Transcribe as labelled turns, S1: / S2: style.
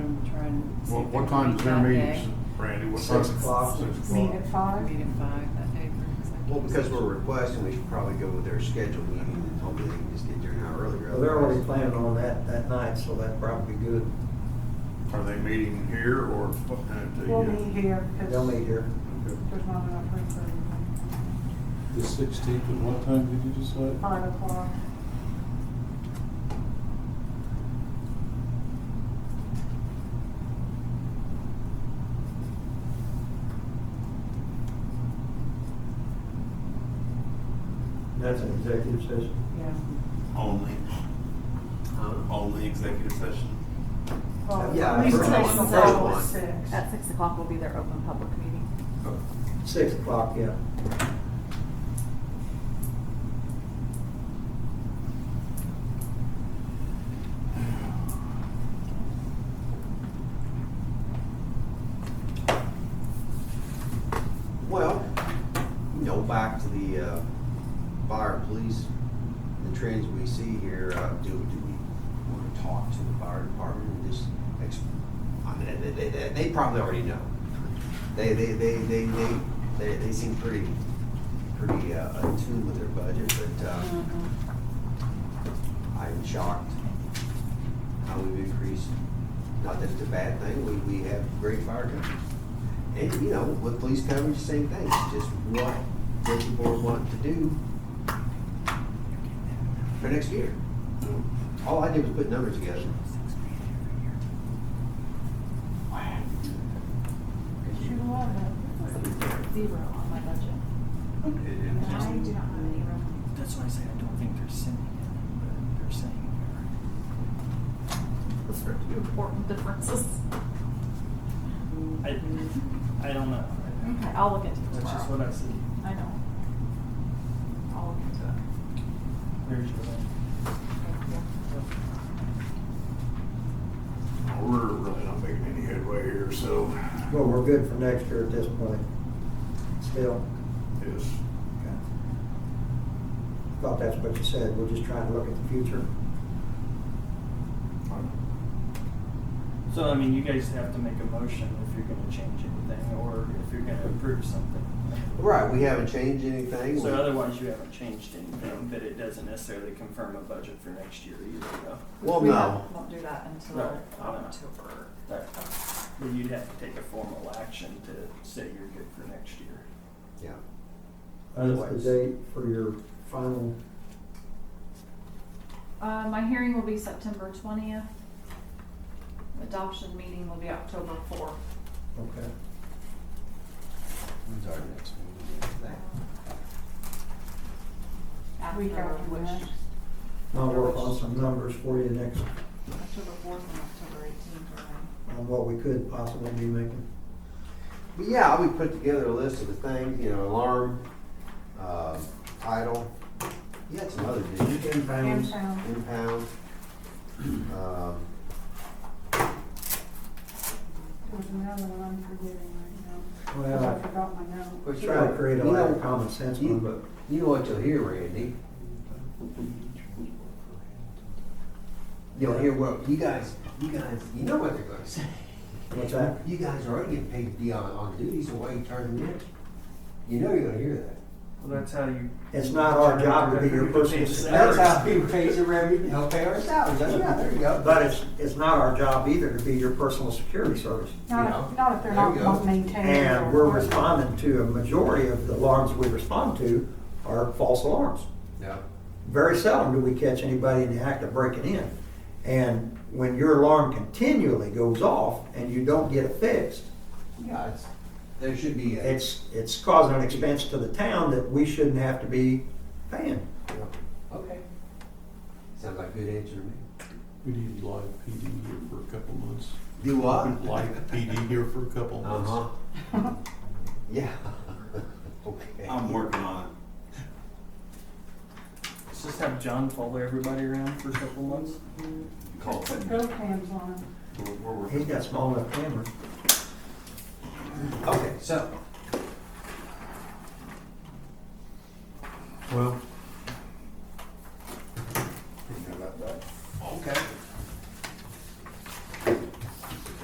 S1: What, what time is their meetings, Randy? What time?
S2: Six o'clock.
S1: Six
S3: Meet
S1: o'clock.
S3: at five?
S4: Meet at five that day for executive
S2: Well, because
S4: session.
S5: we're requesting, we should probably go with their scheduled meeting and hopefully they can just get there an hour earlier.
S2: Well, they're already
S5: otherwise-
S2: planning on that, that night, so that'd probably be good.
S1: Are they meeting here or at the? uh,
S3: We'll meet here. 'cause
S2: They'll meet here.
S3: There's not enough room for everything.
S6: The sixteenth, at what time did you decide?
S3: Five o'clock.
S2: That's an executive session.
S3: Yeah.
S7: Only,
S5: Huh?
S7: only executive session.
S3: Well,
S5: Yeah,
S3: we
S5: the
S3: can
S5: first
S3: take
S5: one,
S3: the
S5: the first
S3: call at
S5: one.
S3: six.
S8: At six o'clock will be their open public meeting.
S2: Six o'clock, yeah.
S5: Well, you know, back to the, uh, fire police, the trends we see here, uh, do, do we wanna talk to the fire department and just, ex- I mean, they, they, they, they probably already know. They, they, they, they, they, they, they seem pretty, pretty, uh, attuned with their budget, but, uh,
S8: Mm-hmm.
S5: I'm shocked how we've increased, not that it's a bad thing, we, we have great fire companies. And, you know, with police coverage, same thing, It's just what does the board want to do for next year? All I did was put numbers together.
S3: Shoot a lot of.
S8: Zero on my budget.
S3: I do not have any room.
S9: That's why I say I don't think they're sending it, but they're saying they're.
S8: Those are two important differences.
S9: I, I don't know.
S8: Okay, I'll look into it
S9: That's just what
S8: tomorrow.
S9: I see.
S8: I know. I'll look into it.
S9: There's your thing.
S8: Thank you.
S1: We're really not making any headway here, so.
S2: Well, we're good for next year at this point, still.
S1: Yes.
S2: Thought that's what you said, we're just trying to look at the future.
S1: uh,
S9: So, I mean, you guys have to make a motion if you're gonna change anything, or if you're gonna approve something.
S5: Right, we haven't changed anything.
S9: So otherwise, you haven't changed anything, but it doesn't necessarily confirm a budget for next year either, though.
S5: Well,
S8: We
S5: no,
S8: won't- Won't do that until
S9: Right.
S8: October.
S9: But but you'd have to take a formal action to say you're good for next year.
S5: yeah,
S2: What's
S9: Otherwise-
S2: the date for your final,
S8: Uh, my hearing will be September twentieth. Adoption meeting will be October fourth.
S2: okay.
S5: when's our next meeting after that?
S8: After
S3: Week after
S8: which,
S3: next.
S2: I'll work on some numbers for you next,
S4: October fourth and October eighteenth are my
S2: on what we could possibly be making.
S5: But yeah, we put together a list of the things, you know, alarm, uh, title, you had some other, did you?
S3: And
S2: Impounds,
S3: sound.
S5: impound. Um,
S3: There's another one I'm forgetting right now. 'cause I
S2: well,
S3: forgot my note.
S5: Well,
S2: I try to create a
S5: You know-
S2: lot of common sense one, but
S5: You know what you'll hear, Randy? You'll hear, well, you guys, you guys, you know what they're gonna say.
S2: what's that?
S5: You guys are already getting paid to be on, on duty, so why you turn them in? You know you're gonna hear that.
S9: Well, that's how you.
S2: It's not our job to be your personal
S5: That's how we raise the revenue, help pay our salaries, yeah, there you go.
S2: But it's, it's not our job either to be your personal security service.
S3: Not
S5: Yeah.
S3: if, not if they're
S5: There you
S3: not
S5: go.
S3: maintained.
S2: And we're responding to, a majority of the alarms we respond to are false alarms.
S5: Yeah.
S2: Very seldom do we catch anybody in the act of breaking in. And when your alarm continually goes off and you don't get it fixed,
S5: Yeah, it's, there should be a.
S2: it's, it's causing an expense to the town that we shouldn't have to be paying.
S5: Okay. Sounds like a good answer to me.
S6: We need live PD here for a couple months.
S5: Do what?
S6: Live PD here for a couple months.
S5: Uh-huh. Yeah. Okay.
S7: I'm working on it.
S9: Let's just have John follow everybody around for a couple months.
S7: Call
S3: Put
S7: it.
S3: go cams on.
S7: We're- we're working.
S2: He's got small enough cameras.
S5: Okay, so,
S1: Well,